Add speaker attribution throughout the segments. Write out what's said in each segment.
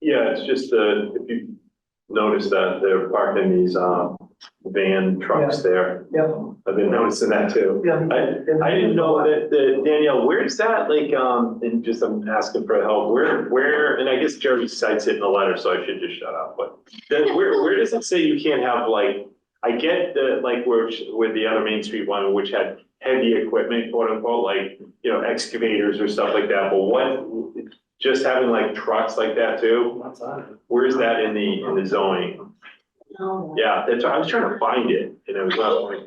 Speaker 1: Yeah, it's just the, if you notice that they're parking these, um, van trucks there.
Speaker 2: Yep.
Speaker 1: I've been noticing that too.
Speaker 2: Yeah.
Speaker 1: I, I didn't know that, that Danielle, where's that, like, um, and just I'm asking for help, where, where, and I guess Jeremy cites it in the letter, so I should just shut up, but then where, where does it say you can't have like, I get the, like, where, with the other Main Street one, which had heavy equipment, quote unquote, like, you know, excavators or stuff like that, but what, just having like trucks like that too? Where is that in the, in the zoning?
Speaker 3: No.
Speaker 1: Yeah, that's, I was trying to find it, and I was not like,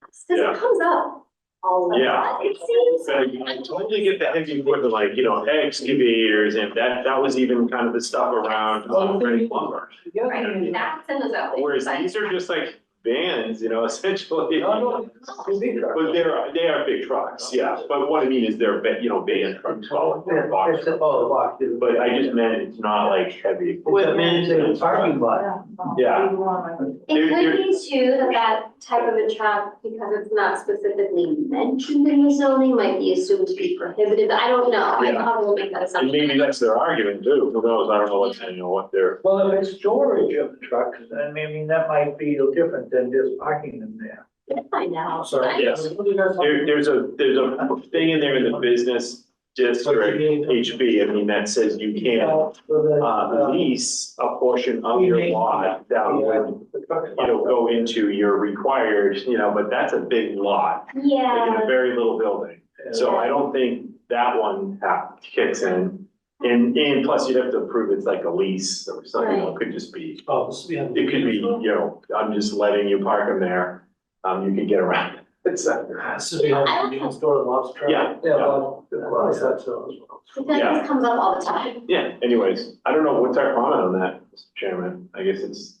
Speaker 3: Cause
Speaker 1: Yeah.
Speaker 3: it comes up all the
Speaker 1: Yeah.
Speaker 3: time, it seems.
Speaker 1: I totally get the heavy equipment, like, you know, excavators, and that, that was even kind of the stuff around um, Ready Lumber.
Speaker 3: Right, that's in the zoning.
Speaker 1: Whereas
Speaker 3: but-
Speaker 1: these are just like vans, you know, essentially.
Speaker 2: No, no, these are-
Speaker 1: But they're, they are big trucks, yeah, but what I mean is they're, ba- you know, van trucks, well,
Speaker 2: Yeah,
Speaker 1: box
Speaker 2: it's a- oh, the box, dude.
Speaker 1: But I just meant it's not like heavy equipment.
Speaker 2: It's a- it's a parking lot.
Speaker 1: Yeah.
Speaker 3: It
Speaker 1: There-
Speaker 3: could be too, that that type of a truck, because it's not specifically mentioned in the zoning, might be assumed to be prohibited, I don't know, I
Speaker 1: Yeah.
Speaker 3: probably will make that
Speaker 1: And
Speaker 3: assumption.
Speaker 1: maybe that's their argument too, who knows, I don't know what, you know, what they're,
Speaker 2: Well, if it's storage of trucks, I mean, I mean, that might be different than just parking them there.
Speaker 3: We'll Find out.
Speaker 2: Sorry.
Speaker 1: yes. There, there's a, there's a thing in there in the business district, HB, I mean, that says you can't uh, lease a portion of your lot that would, you know, go into your required, you know, but that's a big lot, like in a
Speaker 3: Yeah,
Speaker 1: very little building. So I don't think that one ha- kicks in. And, and plus you'd have to prove it's like a lease or something, you know, it could just be,
Speaker 2: Oh, so we have-
Speaker 1: it could be, you know, I'm just letting you park them there. Um, you could get around it. It's, uh,
Speaker 2: So we have a new store in Lobster.
Speaker 1: Yeah, yeah.
Speaker 2: well, that's so as well.
Speaker 3: I feel like this comes up all the time.
Speaker 1: yeah, anyways, I don't know, what's our comment on that, Mr. Chairman? I guess it's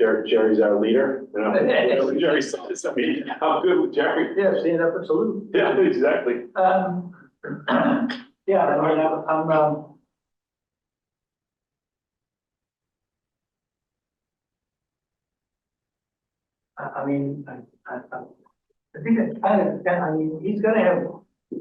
Speaker 1: Jer- Jerry's our leader, you know? Jerry said this, I mean, I'm good with Jerry.
Speaker 2: Yeah, stand up and salute.
Speaker 1: Yeah, exactly.
Speaker 2: Um, yeah, I mean, I'm, I'm, um. I, I mean, I, I, I I think it's kind of, I mean, he's gonna have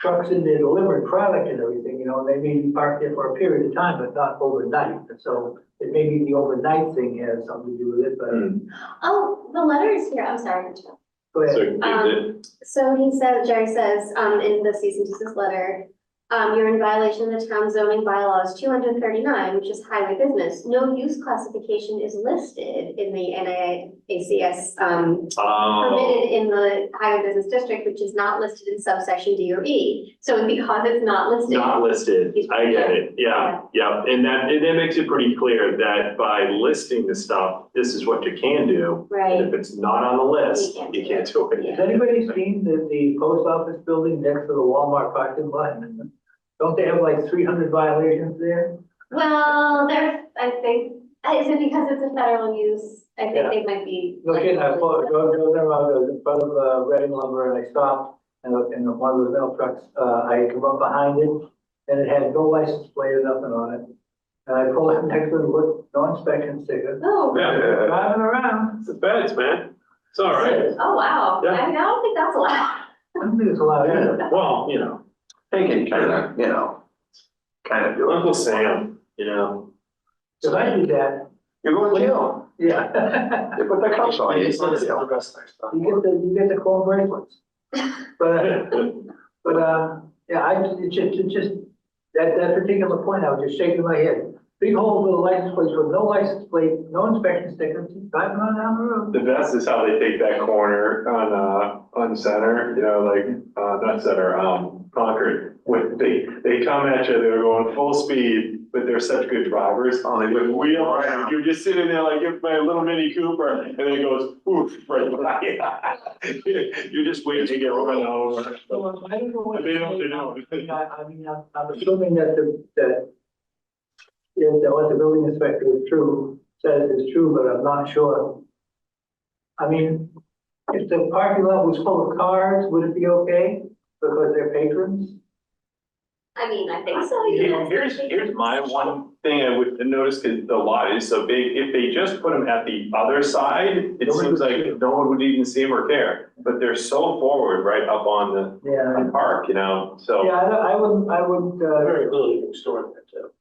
Speaker 2: trucks in there delivering product and everything, you know, they may be parked there for a period of time, but not overnight. So it may be the overnight thing has something to do with it, but
Speaker 1: Mm.
Speaker 3: Oh, the letter is here, I'm sorry, Rachel.
Speaker 2: go
Speaker 1: So,
Speaker 2: ahead.
Speaker 1: is it-
Speaker 3: Um, So he says, Jerry says, um, in the cease and desist letter, um, you're in violation of the town zoning bylaws two hundred thirty-nine, which is highway business. No use classification is listed in the NIACS, um,
Speaker 1: oh,
Speaker 3: permitted in the highway business district, which is not listed in subsection D or E. So because it's not listed.
Speaker 1: not listed, I get it, yeah, yeah, and that, and that makes it pretty clear that by listing the stuff, this is what you can do. And
Speaker 3: Right,
Speaker 1: if it's not on the list,
Speaker 3: You can't
Speaker 1: you
Speaker 3: do
Speaker 1: can't do it.
Speaker 2: Has anybody seen the, the post office building next to the Walmart parking lot? Don't they have like three hundred violations there?
Speaker 3: well, there, I think, uh, is it because it's a federal use? I
Speaker 2: Yeah.
Speaker 3: think they might be.
Speaker 2: Look at, I pulled, go, go there, I was in front of, uh, Reading lumber and I stopped and, looked, and one of the mail trucks, uh, I come up behind it and it had no license plate or nothing on it. And I pulled up next to it with no inspection sticker.
Speaker 3: Oh,
Speaker 1: Yeah.
Speaker 2: Driving around,
Speaker 1: It's the feds, man, it's all right.
Speaker 3: oh, wow.
Speaker 1: Yeah.
Speaker 3: I mean, I don't think that's allowed.
Speaker 2: I don't think it's allowed either.
Speaker 1: Yeah, Well, you know,
Speaker 4: They can kind of, you know, kind of do it.
Speaker 1: Uncle Sam, you know,
Speaker 2: If I did that,
Speaker 4: You're going to jail.
Speaker 2: yeah.
Speaker 4: They put the cops on you. It's not jail.
Speaker 2: You get the, you get the cold bracelets. But, But, uh, yeah, I, it just, it just, that, that particular point, I was just shaking my head. Big hole with a license plate, with no license plate, no inspection sticker, just driving on down the road.
Speaker 1: The best is how they take that corner on, uh, on center, you know, like, uh, not center, um, Concord. With, they, they come at you, they're going full speed, but they're such good drivers,
Speaker 4: Oh, they
Speaker 1: with
Speaker 4: would
Speaker 1: wheel,
Speaker 4: wheel around.
Speaker 1: you're just sitting there like, you're my little Mini Cooper, and then it goes, oof, right by you. You're just waiting to get run over.
Speaker 2: So um, I don't know what.
Speaker 1: They don't- they
Speaker 2: to say now.
Speaker 1: don't.
Speaker 2: I mean, I, I mean, I'm, I'm assuming that the, that is that what the building inspector is true, says is true, but I'm not sure. I mean, if the parking lot was full of cars, would it be okay? Because they're patrons?
Speaker 3: I mean, I think so,
Speaker 1: Here-
Speaker 3: yeah.
Speaker 1: Here's, here's my one thing I would notice, cause the lot is so big, if they just put them at the other side, it
Speaker 2: No one
Speaker 1: seems
Speaker 2: would
Speaker 1: like
Speaker 2: see 'em.
Speaker 1: no one would even see them or care. But they're so forward right up on the,
Speaker 2: Yeah.
Speaker 1: on park, you know, so.
Speaker 2: Yeah, I, don't- I wouldn't, I wouldn't, uh,
Speaker 5: Very little you can store in that, too.